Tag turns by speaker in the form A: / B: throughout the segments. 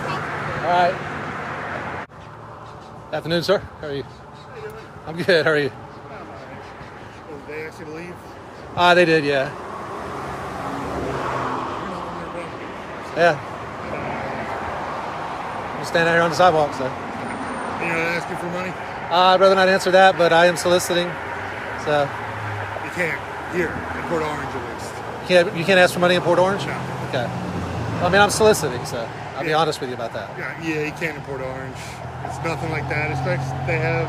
A: All right. Afternoon, sir. How are you? I'm good. How are you?
B: Oh, they actually leave?
A: Ah, they did. Yeah. Yeah. I'm standing out here on the sidewalk, so.
B: You're not asking for money?
A: Uh, I'd rather not answer that, but I am soliciting. So
B: You can't. Here, in Port Orange at least.
A: you can't you can't ask for money in Port Orange.
B: No.
A: Okay. I mean, I'm soliciting, so I'll be
B: Yeah.
A: honest with you about that.
B: Yeah, yeah, you can't in Port Orange. It's nothing like that. It's like they have,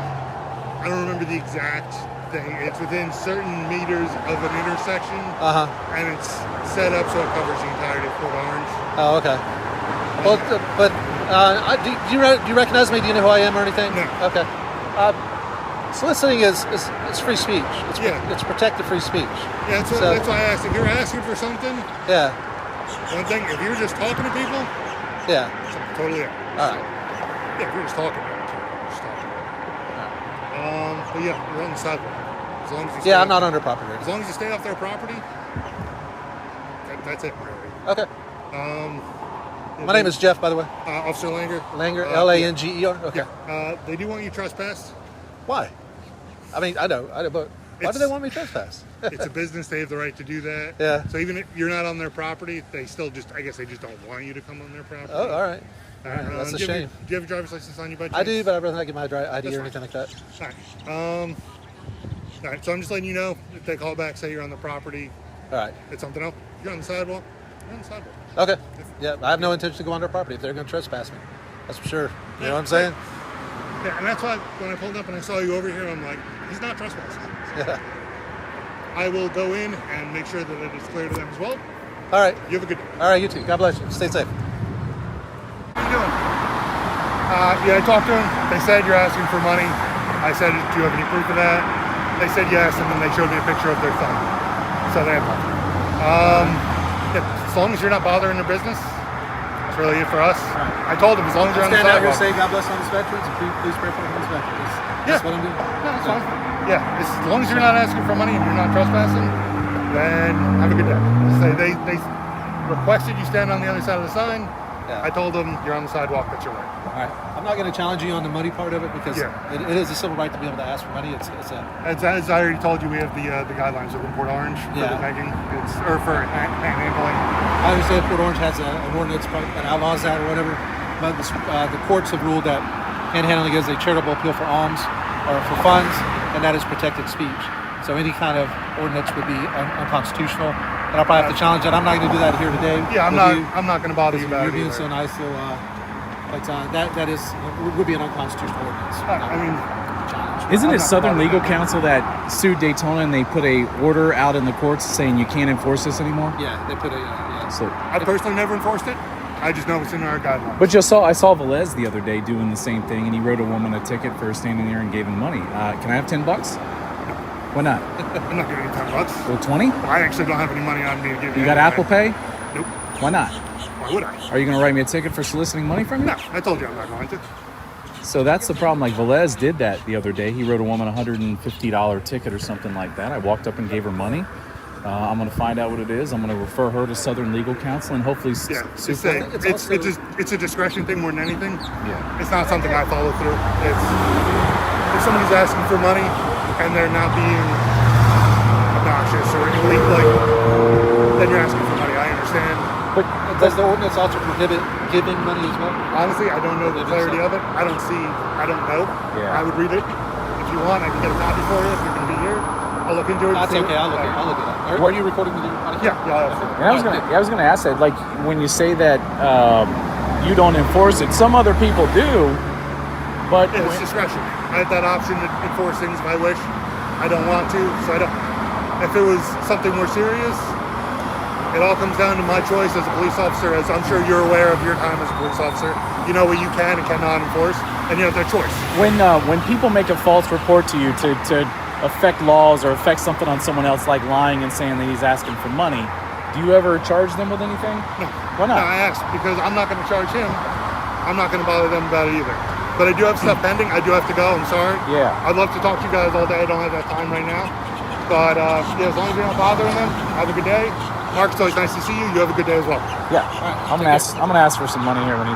B: I don't remember the exact thing. It's within certain meters of an intersection,
A: Uh huh.
B: and it's set up so it covers the entirety of Port Orange.
A: Oh, okay. Well, th- but uh, I- do, do you re- do you recognize me? Do you know who I am or anything?
B: No.
A: Okay. Uh, soliciting is, is it's free speech. It's,
B: Yeah.
A: It's protected free speech.
B: Yeah, that's, what,
A: So-
B: that's why I asked. If you're asking for something,
A: Yeah.
B: one thing, if you're just talking to people,
A: Yeah.
B: something totally
A: All
B: else.
A: right.
B: Yeah, if you're just talking about it, you're just talking about it. Um, but yeah, you're on the sidewalk. As long as you stay
A: Yeah, I'm
B: off-
A: not under property.
B: As
A: rights.
B: long as you stay off their property, that, that's it, really.
A: Okay.
B: Um,
A: My name is Jeff, by the way.
B: uh, Officer Langer.
A: Langer,
B: Uh,
A: L A N G E R. Okay.
B: Yeah. Uh, they do want you trespassed.
A: Why? I mean, I know, I know, but why do
B: It's-
A: they want me trespass?
B: It's a business; they have the right to do that.
A: Yeah.
B: So even if you're not on their property, they still just—I guess they just don't want you to come on their property.
A: Oh, all right.
B: All right,
A: That's
B: uh,
A: a
B: do you have your-
A: shame.
B: do you have a driver's license on you, by chance?
A: I do, but I'd rather not get my dri- ID
B: That's
A: or
B: fine.
A: anything like that.
B: All right. Um. All right. So I'm just letting you know if they call back, say you're on the property,
A: All right.
B: it's something else. You're on the sidewalk. You're on the sidewalk.
A: Okay. Yeah, I have no intention to go on their property if they're going to trespass me. That's for sure. You know what I'm saying?
B: Yeah, and that's why when I pulled up and I saw you over here, I'm like, he's not trespassing.
A: Yeah.
B: I will go in and make sure that it is clear to them as well.
A: All right.
B: You have a good day.
A: All right, you too. God bless you. Stay safe.
B: How you doing? Uh, yeah, I talked to him. They said you're asking for money. I said, do you have any proof of that? They said yes, and then they showed me a picture of their thumb. So they have nothing. Um, yeah, as long as you're not bothering their business, that's really it for us. I told them as long as you're on the
A: Stand out here,
B: sidewalk.
A: say God bless homeless veterans, and please- please pray for the homeless veterans. That's-
B: Yeah.
A: That's what I'm doing.
B: No, it's fine. Yeah, as long as you're not asking for money and you're not trespassing, then have a good day. Say they, they requested you stand on the other side of the sign.
A: Yeah.
B: I told them you're on the sidewalk, that's your right.
A: All right. I'm not going to challenge you on the money part of it because
B: Yeah.
A: it, it is a civil right to be able to ask for money. It's, it's a
B: As, as I already told you, we have the uh, the guidelines of Port Orange for
A: Yeah.
B: the pegging, it's, or for hand, handling.
A: I understand Port Orange has a, an ordinance part that outlaws that or whatever, but the, s- uh, the courts have ruled that panhandling is a charitable appeal for alms or for funds, and that is protected speech. So any kind of ordinance would be un- unconstitutional, and I'll probably have to challenge that. I'm not going to do that here today.
B: Yeah, I'm
A: with
B: not
A: you.
B: I'm not going to bother you
A: You're
B: about it.
A: being
B: either.
A: so nice, so, uh, but uh, that, that is, would be an unconstitutional ordinance.
B: Uh, I mean,
A: Challenge.
C: Isn't
B: I'm
C: it
B: not
C: Southern
B: bothered
C: Legal
B: by that.
C: Counsel that sued Daytona and they put a order out in the courts saying you can't enforce this anymore?
A: Yeah, they put a, uh, yeah.
C: So,
B: I personally never enforced it. I just know it's in our guidelines.
C: but you saw I saw Velez the other day doing the same thing, and he wrote a woman a ticket for standing there and gave him money. Uh, can I have ten bucks? Why not?
B: I'm not giving you ten bucks.
C: Well, twenty.
B: I actually don't have any money on me to give you.
C: You got Apple
B: anyway.
C: Pay?
B: Nope.
C: Why not?
B: Why would I?
C: Are you gonna write me a ticket for soliciting money from you?
B: No, I told you I'm not going to.
C: So that's the problem. Like Velez did that the other day. He wrote a woman a hundred and fifty dollar ticket or something like that. I walked up and gave her money. Uh, I'm gonna find out what it is. I'm gonna refer her to Southern Legal Counsel and hopefully s-
B: Yeah,
C: sue
B: it's
C: for
B: a,
C: it.
A: think it's
B: it's, it's,
A: also-
B: just it's a discretion thing more than anything.
C: Yeah.
B: It's not something I follow through. It's if somebody's asking for money and they're not being obnoxious or illegal, like, then you're asking for money. I understand.
A: But does the ordinance also prohibit giving money as well?
B: Honestly, I don't know the
A: Maybe
B: clarity
A: so.
B: of it. I don't see. I don't know.
C: Yeah.
B: I would read it if you want. I can get a copy for you if you're gonna be here. I'll look into it. and
A: That's
B: see
A: okay. I'll look. At, I'll look at that. Are, are you recording with your podcast?
B: Yeah, yeah, I'll look.
C: And I was gonna, I was gonna ask that. Like when you say that um, you don't enforce it, some other people do, but
B: Yeah, It's discretion. I have that option to enforce things if I wish. I don't want to, so I don't. If it was something more serious, it all comes down to my choice as a police officer. As I'm sure you're aware of your time as a police officer, you know what you can and cannot enforce, and you have that choice.
C: when uh, when people make a false report to you to, to affect laws or affect something on someone else, like lying and saying that he's asking for money, do you ever charge them with anything? No. Why
B: Now,
C: not?
B: I asked because I'm not going to charge him. I'm not going to bother them about it either. But I do have stuff pending. I do have to go. I'm sorry.
C: Yeah.
B: I'd love to talk to you guys all day. I don't have that time right now. But uh, yeah, as long as you're not bothering them, have a good day. Mark, it's always nice to see you. You have a good day as well.
C: yeah. I'm gonna ask. I'm gonna ask for some money here when he